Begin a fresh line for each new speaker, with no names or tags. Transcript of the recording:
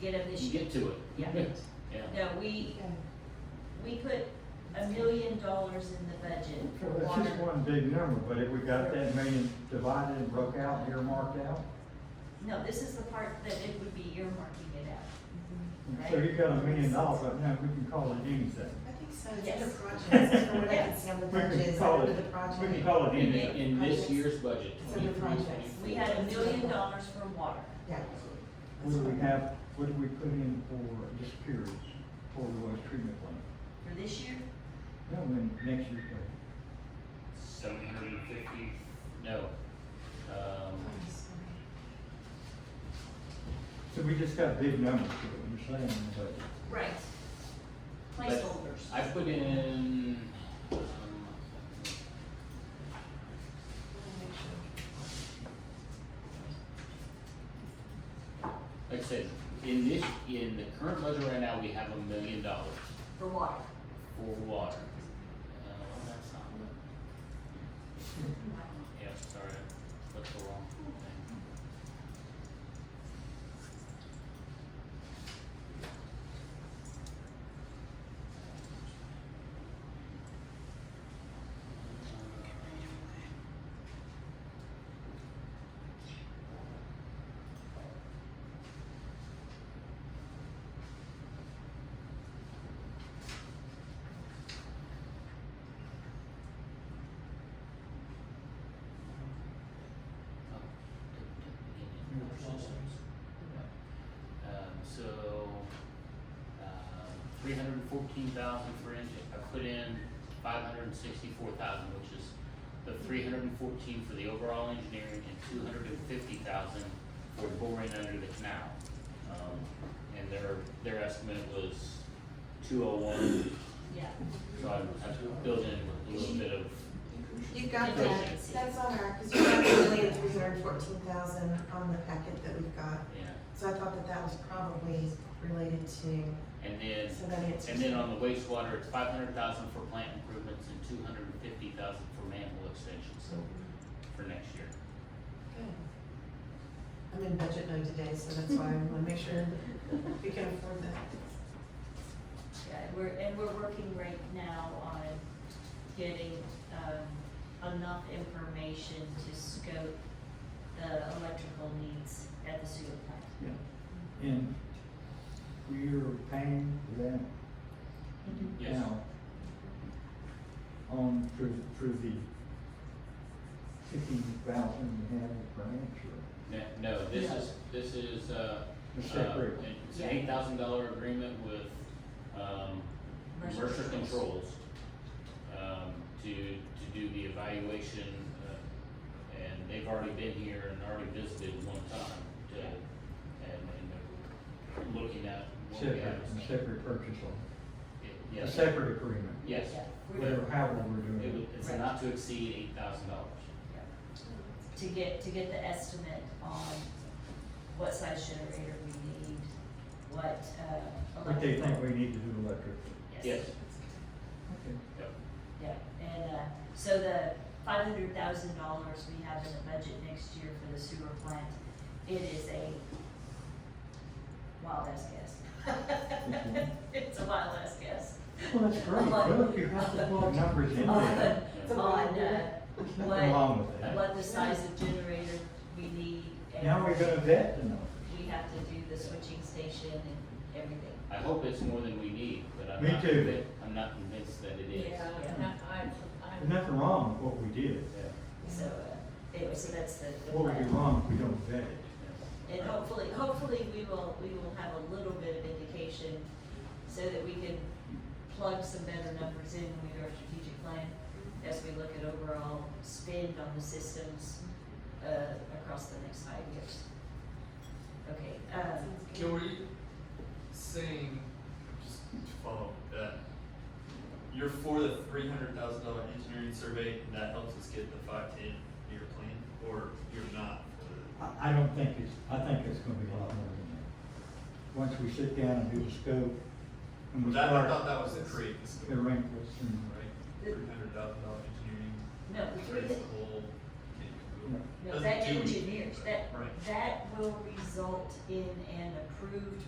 get them this year.
get to it.
Yeah.
Yeah.
No, we, we put a million dollars in the budget for
Well, It's just
water.
one big number, but if we got that million divided and broke out, earmarked out,
No, this is the part that it would be earmarking it out.
so you got a million dollars, but now we can call it anything.
I think so, it's
Yes.
under projects, from what I can see on the
We
budget,
can
it's
call
under
it,
the
we
project.
can call it
In,
anything.
in this year's budget,
It's under
twenty-three,
projects.
twenty-four.
We had a million dollars for water.
Yeah.
What do we have, what do we put in for, just curious, for the waste treatment plant?
For this year,
No, when next year's budget.
Seven hundred and fifty, no. Um,
So we just got big numbers to it, you're saying, but
right.
but I
Placeholders.
put in, um, like I said, in this, in the current budget right now, we have a million dollars
For water.
for water. Uh, that's not what. Yeah, sorry, I clicked the wrong thing. Um, so, um, three hundred and fourteen thousand for engine, I put in five hundred and sixty-four thousand, which is the three hundred and fourteen for the overall engineering and two hundred and fifty thousand for boring under the canal. Um, and their, their estimate was two oh one,
Yeah.
so I, I built in a little bit of,
You've got that,
Efficiency.
that's on our, because you have a million three hundred and fourteen thousand on the packet that we've got.
yeah,
So I thought that that was probably related to,
and then
so that answers.
And then on the wastewater, it's five hundred thousand for plant improvements and two hundred and fifty thousand for manhole extensions
So,
for next year.
good. I'm in budget mode today, so that's why I want to make sure we can afford that.
Yeah, and we're, and we're working right now on getting, um, enough information to scope the electrical needs at the sewer plant.
yeah. And we're paying for that
Yes,
now. On, through, through the fifteen thousand we have for insurance.
Ne- no, this is, this is, uh,
The
uh,
separate.
it's an eight thousand dollar agreement with, um,
Mercer
Mercer
Controls.
Controls. Um, to, to do the evaluation, uh, and they've already been here and already visited one time to,
Yeah.
and, and looking at what we have.
Separate, a separate purchase order, a
Yes,
separate agreement,
yes,
Yeah, we're-
whatever, however we're
it
doing
would,
it.
it's
Right.
not to exceed eight thousand dollars.
to get, to get the estimate on what size generator we need, what, uh.
What they
electrical-
think we need to do electric.
Yes,
Okay.
Yeah, and, uh, so the five hundred thousand dollars we have in the budget next year for the sewer plant, it is a wild ass guess.
Mhm.
It's a wild ass guess.
Well, that's great, look, you have to plug numbers in there.
On, uh,
There's Nothing
what,
wrong with that.
what the size of generator we need and.
Now we're gonna vet the numbers.
we have to do the switching station and everything.
I hope it's more than we need, but I'm
Me
not
too.
convinced, I'm not convinced that it is.
Yeah, I,
There's
I,
nothing wrong with what we did.
So, uh, anyway, so that's the, the
What would be
plan.
wrong if we don't vet it?
And hopefully, hopefully we will, we will have a little bit of indication so that we can plug some better numbers in when we do our strategic plan as we look at overall spend on the systems, uh, across the next five years. Okay, um,
Can we saying just to follow up that you're for the three hundred thousand dollar engineering survey and that helps us get the five ten year plan, or you're not for the
I, I don't think it's, I think it's gonna be a lot more than that. Once we sit down and do the scope, and we
That, I thought
start
that was the create the scope,
the
right?
wrinkles and,
Three hundred thousand dollar engineering,
no, the three,
creates the whole.
No.
no,
Doesn't
that
do anything.
engineers, that,
Right.
that will result in an approved